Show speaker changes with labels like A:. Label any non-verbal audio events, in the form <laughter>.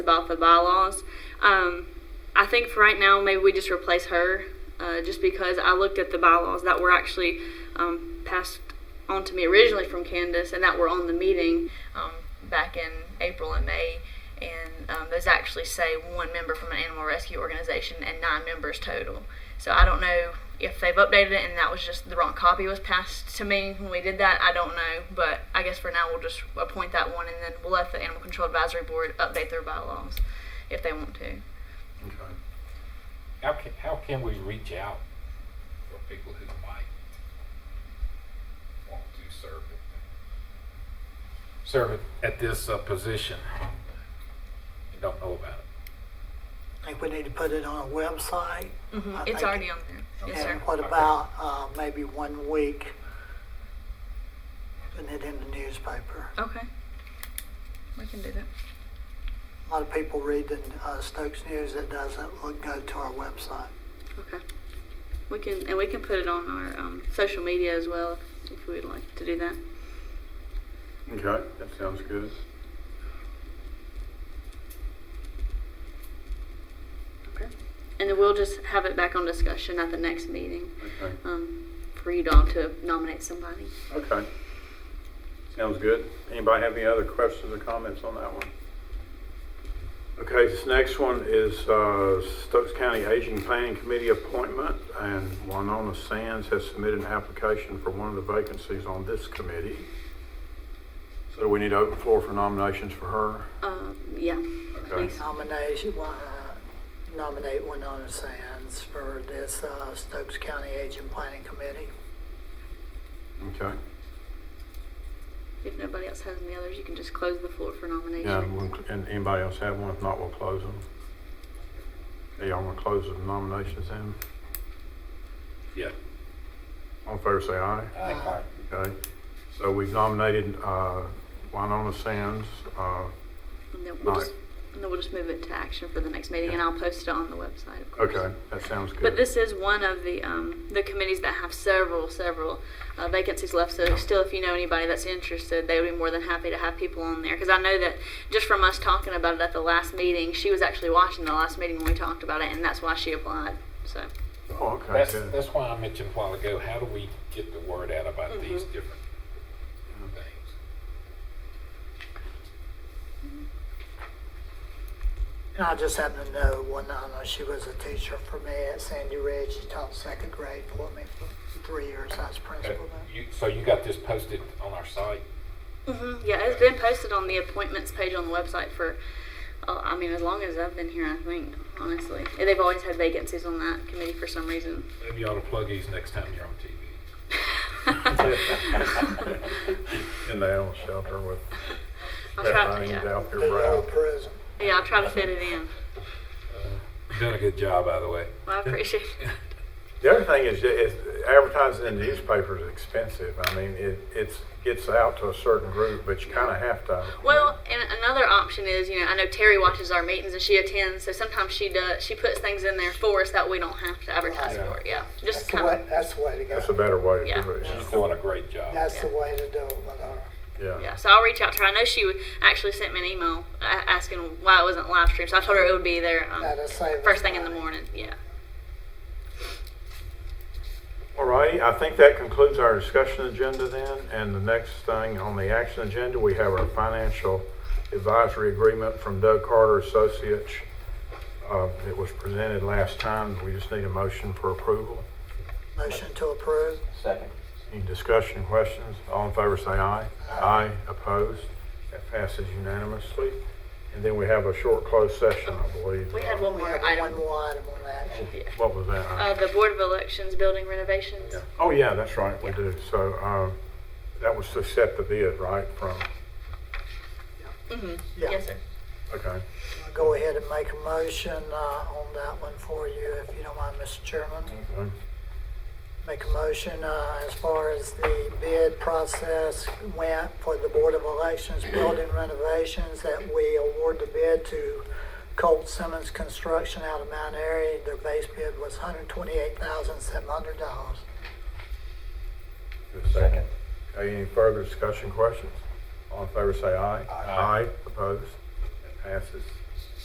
A: about the bylaws. Um, I think for right now, maybe we just replace her, uh, just because I looked at the bylaws that were actually um, passed on to me originally from Candace and that were on the meeting um, back in April and May. And um, those actually say one member from an animal rescue organization and nine members total. So I don't know if they've updated it and that was just the wrong copy was passed to me when we did that. I don't know, but I guess for now we'll just appoint that one and then we'll let the Animal Control Advisory Board update their bylaws if they want to.
B: Okay.
C: How can, how can we reach out?
B: For people who might want to serve it.
C: Serve at- at this uh, position? You don't know about it.
D: I think we need to put it on a website. I
A: It's
D: think-
A: already on there. Yes, sir.
D: And what about, uh, maybe one week, putting it in the newspaper?
A: Okay. We can do that.
D: A lot of people read the, uh, Stokes News that doesn't look, go to our website.
A: Okay. We can, and we can put it on our um, social media as well if, if we would like to do that.
E: Okay, that sounds good.
A: Okay. And then we'll just have it back on discussion at the next meeting
E: Okay,
A: um, for you all to nominate somebody.
E: okay. Sounds good. Anybody have any other questions or comments on that one? Okay, this next one is uh, Stokes County Aging Planning Committee appointment, and Winona Sands has submitted an application for one of the vacancies on this committee. So we need to open floor for nominations for her.
A: Um, yeah.
E: Okay.
A: Please.
D: Nomination, uh, nominate Winona Sands for this, uh, Stokes County Aging Planning Committee.
E: Okay,
A: If nobody else has any others, you can just close the floor for nomination.
E: yeah, we'll- and anybody else have one? If not, we'll close them. Hey, y'all want to close the nominations then?
C: Yeah.
E: All in favor, say aye.
C: Uh,
D: Aye.
E: Okay, so we've nominated uh, Winona Sands. uh,
A: And then we'll
E: All
A: just, and then we'll just move it to action for the next meeting, and
E: Yeah.
A: I'll post it on the website. Of course.
E: Okay, that sounds good.
A: But this is one of the um, the committees that have several several uh, vacancies left. So still, if you know anybody that's interested, they would be more than happy to have people on there. Because I know that just from us talking about it at the last meeting, she was actually watching the last meeting when we talked about it, and that's why she applied. So
E: Oh, okay,
C: That's,
E: good.
C: that's why I mentioned a while ago, how do we get the word out about these different things?
D: And I just happen to know Winona, she was a teacher for me at Sandy Ridge. She taught second grade for me for three years. I was principal
C: Uh,
D: there.
C: You, so you got this posted on our site?
A: Mhm. yeah, it's been posted on the appointments page on the website for. Uh, I mean, as long as I've been here, I think honestly, And they've always had vacancies on that committee for some reason. <laughs>
C: Maybe you ought to plug these next time you're on <laughs> TV.
E: In the animal shelter with
A: I'll
E: that
A: try,
E: thing
A: yeah.
E: out there,
D: The old
E: Brad.
D: prison.
A: yeah, I'll try to fit it in.
C: You've done a good job, by the way.
A: Well, I appreciate it.
E: The other thing is, that it's- advertising in the newspaper is expensive. I mean, it, it's, gets out to a certain group, but you kind of have to.
A: Well, and another option is, you know, I know Terry watches our meetings and she attends, so sometimes she does, she puts things in there for us that we don't have to advertise
E: Right.
A: for. it. Yeah,
D: That's
A: just
D: the
A: kind of,
D: way, that's the way to
E: That's a
D: go.
E: better way to
A: Yeah.
E: do it.
C: She's doing a great job.
D: That's the way to do it, Winona.
A: yeah. So I'll reach out to her. I know she would- actually sent me an email a- asking why it wasn't live streamed. So I told her it would be there um,
D: That'll save us
A: first thing in the
D: money.
A: morning. Yeah.
E: All righty, I think that concludes our discussion agenda then, and the next thing on the action agenda, we have our financial advisory agreement from Doug Carter Associates. Uh, It was presented last time, we just need a motion for approval.
D: Motion to approve.
E: Any discussion, questions? All in favor, say aye. Aye, opposed? That passes unanimously. And then we have a short closed session, I believe.
A: We had one
D: We
A: more
D: have
A: item.
D: one more item on that.
E: What was that?
A: Uh, the Board of Elections building renovations.
E: Oh, yeah, that's right, we do. So uh, that was to set the bid, right, from,
D: Yeah.
A: Yes, sir.
E: okay.
D: I'll Go ahead and make a motion, uh, on that one for you, if you don't mind, Mr. Chairman.
E: Okay.
D: Make a motion, uh, as far as the bid process went for the Board of Elections building renovations, that we award the bid to Colt Simmons Construction out of Mount Airy. Their base bid was hundred twenty-eight thousand seven hundred dollars.
E: Is there a Second. Okay, any further discussion, questions? All in favor, say aye. Aye. Opposed? It passes.